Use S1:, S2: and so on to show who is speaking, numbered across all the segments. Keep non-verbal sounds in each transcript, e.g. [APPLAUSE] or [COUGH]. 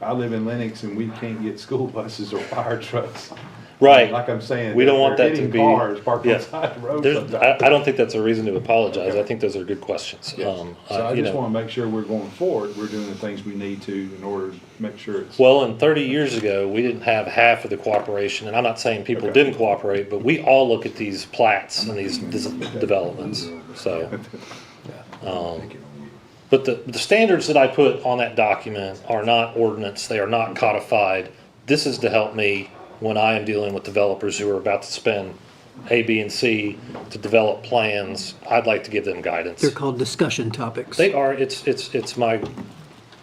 S1: I live in Lenox and we can't get school buses or fire trucks.
S2: Right.
S1: Like I'm saying.
S2: We don't want
S1: they're
S2: that to
S1: hitting
S2: be-
S1: Cars parked
S2: yeah.
S1: on the side of the road
S2: There's,
S1: sometimes.
S2: I, I don't think that's a reason to apologize. I think those are good questions. Um,
S1: So
S2: uh,
S1: I
S2: you
S1: just
S2: know.
S1: wanna make sure we're going forward, we're doing the things we need to in order to make sure it's.
S2: Well, and thirty years ago, we didn't have half of the cooperation, and I'm not saying people
S1: Okay.
S2: didn't cooperate, but we all look at these plats and these dis- developments, so. Um, but the, the standards that I put on that document are not ordinance, they are not codified. This is to help me when I am dealing with developers who are about to spend A, B, and C to develop plans. I'd like to give them guidance.
S3: They're called discussion topics.
S2: They are, it's, it's, it's my,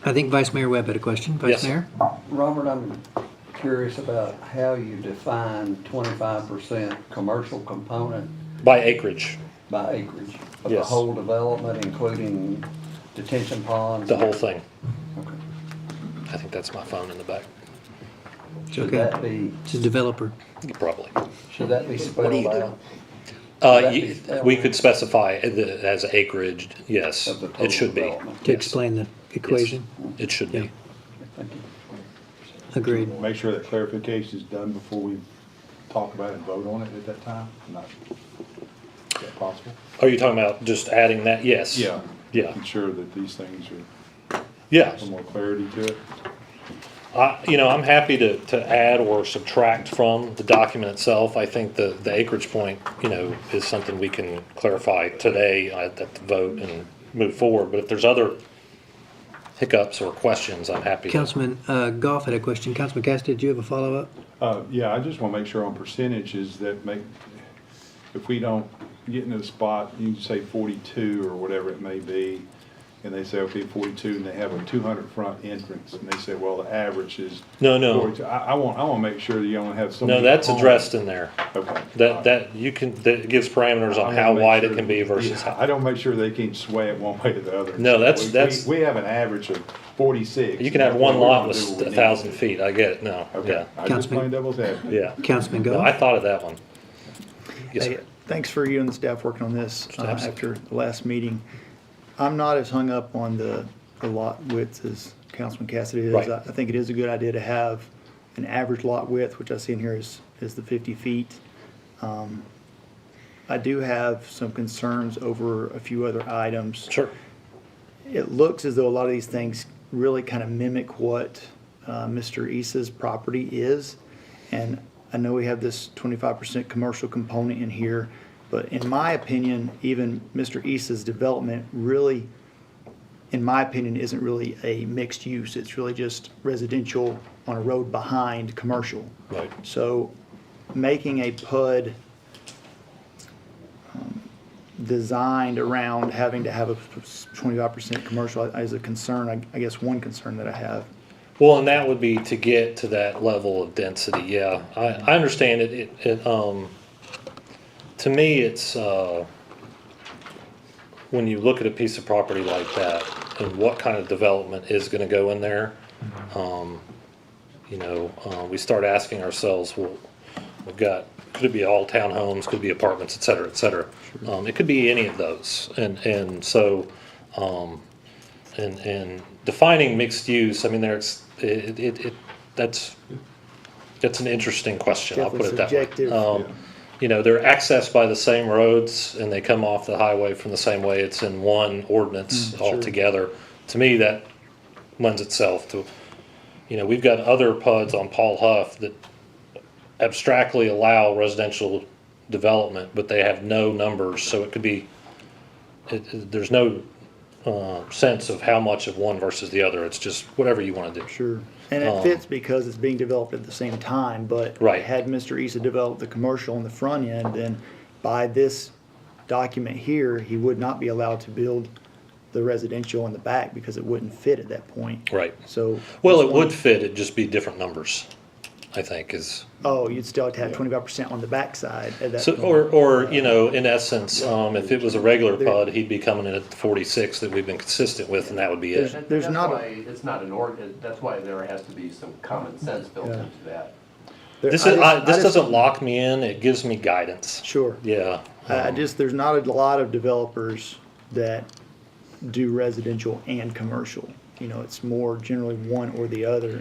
S3: I think Vice Mayor Webb had a question.
S2: Yes.
S3: Vice Mayor?
S4: Robert, I'm curious about how you define twenty-five percent commercial component
S2: by acreage,
S4: by acreage of the
S2: Yes.
S4: whole development, including detention ponds.
S2: the whole thing.
S4: Okay.
S2: I think that's my phone in the back,
S4: Should
S3: Okay.
S4: that be,
S3: It's a developer.
S2: probably.
S4: should that be spelled out?
S2: Uh,
S4: that
S2: you-
S4: be spelled?
S2: we could specify the, as acreage, yes,
S4: Of the
S2: it
S4: total
S2: should be.
S4: development.
S3: To
S2: Yes.
S3: explain the equation.
S2: Yes, It should
S3: Yeah.
S2: be.
S4: Thank you.
S3: Agreed.
S1: Make sure that clarification is done before we talk about it and vote on it at that time, not, is that possible?
S2: Are you talking about just adding that? Yes.
S1: Yeah.
S2: Yeah,
S1: Making sure that these things are,
S2: yeah.
S1: some more clarity to it.
S2: I, you know, I'm happy to, to add or subtract from the document itself. I think the, the acreage point, you know, is something we can clarify today at at the vote and move forward. But if there's other hiccups or questions, I'm happy to.
S3: Councilman uh, Goff had a question. Councilman Cassidy, did you have a follow-up?
S1: Uh, yeah, I just wanna make sure on percentages that make, if we don't get into the spot, you can say forty-two or whatever it may be, and they say, okay, forty-two, and they have a two hundred front entrance, and they say, well, the average is.
S2: No, no.
S1: 42. I, I want, I wanna make sure that you only have so many.
S2: No, that's
S1: homes.
S2: addressed in there.
S1: Okay.
S2: That, that, you can, that gives parameters on how wide it can be versus
S1: Yeah, I
S2: how.
S1: don't make sure they can sway it one [LAUGHS] way or the other.
S2: No, that's-
S1: We- we-
S2: that's-
S1: We have an average of forty-six.
S2: You can have one
S1: We're gonna
S2: lot
S1: do
S2: with
S1: what we
S2: a
S1: need
S2: thousand
S1: to do.
S2: feet, I get it, no, yeah,
S1: Okay, I just
S3: Councilman-
S1: playing devil's advocate.
S2: yeah.
S3: Councilman
S2: No, I
S3: Goff?
S2: thought of that one. Yes,
S5: Hey,
S2: sir.
S5: Thanks for you and the staff working on this uh,
S2: Absolutely.
S5: after the last meeting. I'm not as hung up on the, the lot widths as Councilman Cassidy is.
S2: Right.
S5: I I think it is a good idea to have an average lot width, which I see in here is, is the fifty feet. Um, I do have some concerns over a few other items
S2: Sure,
S5: it looks as though a lot of these things really kind of mimic what uh, Mr. Issa's property is. And I know we have this 25% commercial component in here, but in my opinion, even Mr. Issa's development really, in my opinion, isn't really a mixed use. It's really just residential on a road behind commercial.
S2: right,
S5: So making a PUD um, designed around having to have a twenty-five percent commercial is a concern, I- I guess one concern that I have.
S2: well, and that would be to get to that level of density, yeah, I, I understand it, it, it, um, to me, it's, uh, when you look at a piece of property like that, and what kind of development is gonna go in there, um, you know, uh, we start asking ourselves, well, we've got, could it be all townhomes, could it be apartments, et cetera, et cetera? Um, it could be any of those, and, and so, um, and, and defining mixed use, I mean, there's, it, it, it, that's, that's an interesting question, I'll put it that way.
S5: Definitely subjective.
S2: Um, you know, they're accessed by the same roads and they come off the highway from the same way. It's in one
S5: Mm,
S2: ordinance altogether. To me, that lends itself to, you know, we've got other PUDs on Paul Huff that abstractly allow residential development, but they have no numbers, so it could be, it, it- there's no, uh, sense of how much of one versus the other. It's just whatever you wanna do.
S5: Sure. And it fits because it's being developed at the same time, but
S2: Um. Right.
S5: had Mr. Issa developed the commercial on the front end, then by this document here, he would not be allowed to build the residential in the back because it wouldn't fit at that point.
S2: Right.
S5: So.
S2: Well,
S5: this
S2: it
S5: one-
S2: would fit, it'd just be different numbers, I think is.
S5: Oh, you'd still have to have twenty-five percent on the backside at that
S2: So,
S5: point.
S2: or, or, you know, in essence, um, if it was a regular PUD, he'd be coming in at the forty-six that we've been consistent with, and that would be it.
S6: That-
S5: There's
S6: that's
S5: not a-
S6: why It's not an org, that's why there has to be some common sense built
S5: Yeah.
S6: into that.
S5: There-
S2: This
S5: I
S2: is,
S5: just-
S2: I,
S5: I
S2: this
S5: just-
S2: doesn't lock me in, it gives me guidance.
S5: Sure.
S2: Yeah,
S5: I I just, there's not a lot of developers that do residential and commercial. You know, it's more generally one or the other.